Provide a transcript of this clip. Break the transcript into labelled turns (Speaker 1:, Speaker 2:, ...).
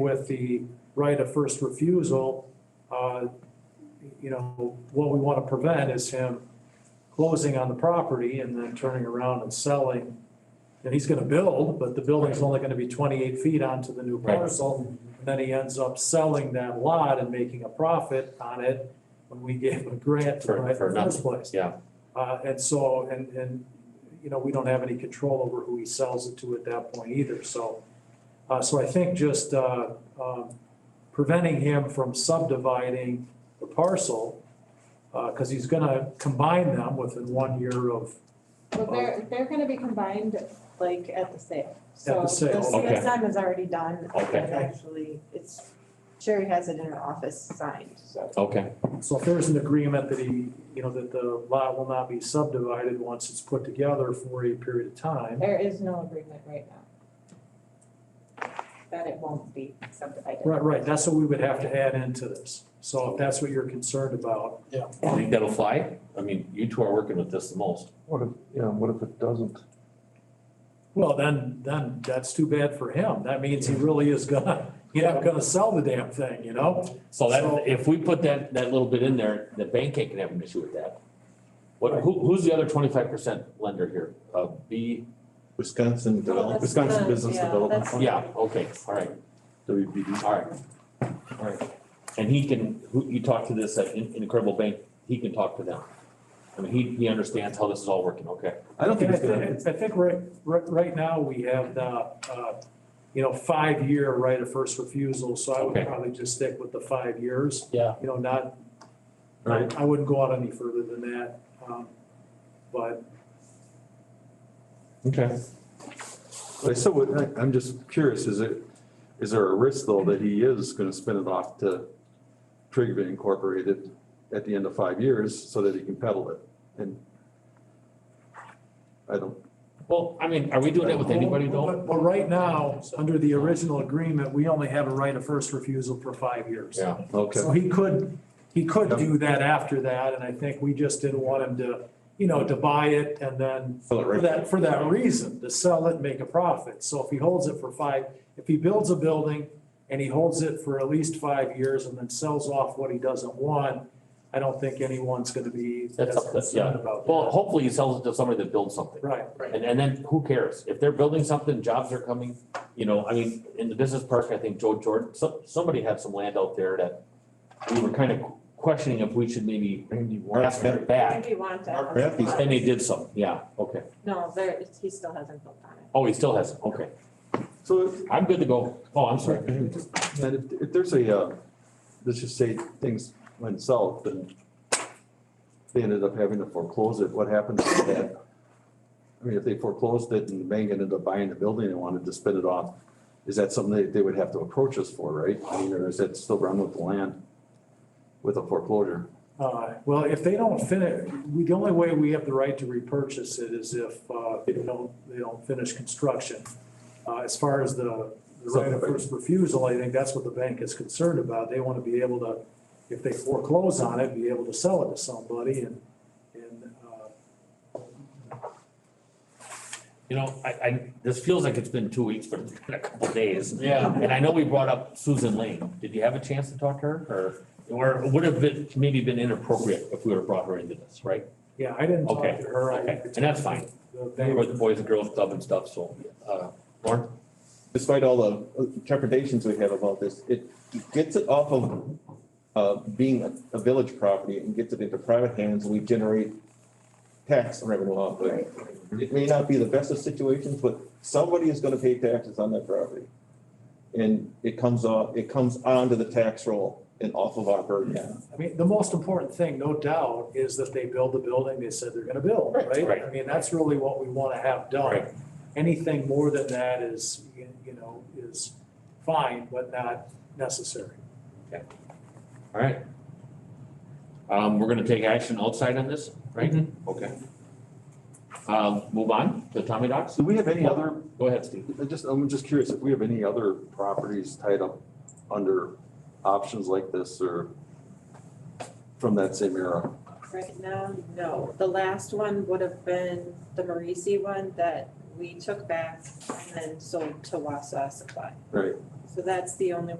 Speaker 1: with the right of first refusal, uh, you know, what we want to prevent is him closing on the property and then turning around and selling. And he's going to build, but the building's only going to be twenty-eight feet onto the new
Speaker 2: Right.
Speaker 1: parcel. And then he ends up selling that lot and making a profit on it when we gave him a grant to
Speaker 2: For-
Speaker 1: buy it
Speaker 2: for
Speaker 1: in the first place.
Speaker 2: yeah.
Speaker 1: Uh, and so, and, and, you know, we don't have any control over who he sells it to at that point either, so. Uh, so I think just, uh, um, preventing him from subdividing the parcel, uh, cause he's gonna combine them within one year of,
Speaker 3: Well, they're, they're gonna be combined like at the sale.
Speaker 1: At the sale,
Speaker 3: So the
Speaker 2: okay.
Speaker 3: CSM is already done.
Speaker 2: Okay.
Speaker 3: It's Actually, it's, Sherry has it in her office signed, so.
Speaker 2: Okay,
Speaker 1: so if there's an agreement that he, you know, that the lot will not be subdivided once it's put together for a period of time.
Speaker 3: There is no agreement right now. That it won't be subdivided.
Speaker 1: Right, right, that's what we would have to add into this, so if that's what you're concerned about,
Speaker 2: I think that'll fly. I mean, you two are working with this the most.
Speaker 4: What if, yeah, what if it doesn't?
Speaker 1: well, then, then that's too bad for him, that means he really is gonna, he's not gonna sell the damn thing, you know? So-
Speaker 2: So that, if we put that, that little bit in there, the bank ain't gonna have an issue with that. What, who, who's the other twenty-five percent lender here? Uh, B,
Speaker 5: Wisconsin
Speaker 3: Well,
Speaker 5: Development,
Speaker 3: that's
Speaker 5: Wisconsin
Speaker 3: the-
Speaker 5: Business
Speaker 3: yeah,
Speaker 5: Development
Speaker 3: that's-
Speaker 5: Fund.
Speaker 2: yeah, okay, all right,
Speaker 5: WBD.
Speaker 2: all right. All right. And he can, who, you talk to this uh, in Incredible Bank, he can talk to them. I mean, he, he understands how this is all working, okay?
Speaker 5: I don't think it's gonna,
Speaker 1: I think right, right, right now, we have the, uh, you know, five-year right of first refusal, so I would
Speaker 2: Okay.
Speaker 1: probably just stick with the five years.
Speaker 2: Yeah.
Speaker 1: You know, not, I,
Speaker 2: Right.
Speaker 1: I wouldn't go out any further than that, um, but
Speaker 5: okay. But I still would, I- I'm just curious, is it, is there a risk though that he is gonna spin it off to Trigva Incorporated at the end of five years so that he can peddle it? And I don't,
Speaker 2: Well, I mean, are we doing that with anybody though?
Speaker 1: But, but right now, under the original agreement, we only have a right of first refusal for five years.
Speaker 2: Yeah.
Speaker 5: okay.
Speaker 1: So he could, he could
Speaker 5: Yep.
Speaker 1: do that after that, and I think we just didn't want him to, you know, to buy it and then
Speaker 5: Fill it
Speaker 1: For
Speaker 5: right-
Speaker 1: that, for that reason, to sell it, and make a profit. So if he holds it for five, if he builds a building and he holds it for at least five years and then sells off what he doesn't want, I don't think anyone's gonna be
Speaker 2: That's
Speaker 1: as
Speaker 2: up to-
Speaker 1: concerned about that.
Speaker 2: Well, hopefully he sells it to somebody that builds something.
Speaker 1: Right,
Speaker 2: And, and then who cares? If they're building something, jobs are coming, you know, I mean, in the business park, I think Joe Jordan, so, somebody had some land out there that we were kind of questioning if we should maybe ask them back.
Speaker 3: Maybe want to.
Speaker 5: Mark Matthews.
Speaker 2: And they did some, yeah, okay.
Speaker 3: No, there, it's- he still hasn't built on it.
Speaker 2: Oh, he still has it, okay.
Speaker 5: So
Speaker 2: I'm good to go. Oh, I'm sorry.
Speaker 5: And if, if there's a, uh, let's just say things went south and they ended up having to foreclose it, what happens to that? I mean, if they foreclosed it and the bank ended up buying the building and wanted to spin it off, is that something that they would have to approach us for, right? I mean, or is that still run with the land with a foreclosure?
Speaker 1: uh, well, if they don't finish, we, the only way we have the right to repurchase it is if, uh, they don't, they don't finish construction. Uh, as far as the, the right of first refusal, I think that's what the bank is concerned about. They wanna be able to, if they foreclose on it, be able to sell it to somebody and, and, uh,
Speaker 2: You know, I, I, this feels like it's been two weeks, but it's been a couple days. Yeah. And I know we brought up Susan Lane. Did you have a chance to talk to her or, or would have been, maybe been inappropriate if we would have brought her into this, right?
Speaker 1: Yeah, I didn't talk
Speaker 2: Okay,
Speaker 1: to her. I-
Speaker 2: okay, and that's fine.
Speaker 1: The
Speaker 2: They were the
Speaker 1: bank-
Speaker 2: Boys and Girls Club and stuff, so, uh, Lauren?
Speaker 6: despite all the interpretations we have about this, it gets it off of uh, being a- a village property and gets it into private hands, we generate tax revenue off of it. It may not be the best of situations, but somebody is gonna pay taxes on that property. And it comes off, it comes onto the tax roll and off of our burden.
Speaker 1: I mean, the most important thing, no doubt, is that they build the building they said they're gonna build, right?
Speaker 2: right.
Speaker 1: I mean, that's really what we wanna have
Speaker 2: Right.
Speaker 1: done. Anything more than that is, you you know, is fine, but not necessary.
Speaker 2: All right. Um, we're gonna take action outside on this, right? Okay. Um, move on to Tommy Docs.
Speaker 5: Do we have any other
Speaker 2: Go ahead, Steve.
Speaker 5: I just, I'm just curious if we have any other properties tied up under options like this or from that same era?
Speaker 3: Right now, no. The last one would have been the Marisi one that we took back and then sold to Wausau Supply.
Speaker 5: Right.
Speaker 3: So that's the only one.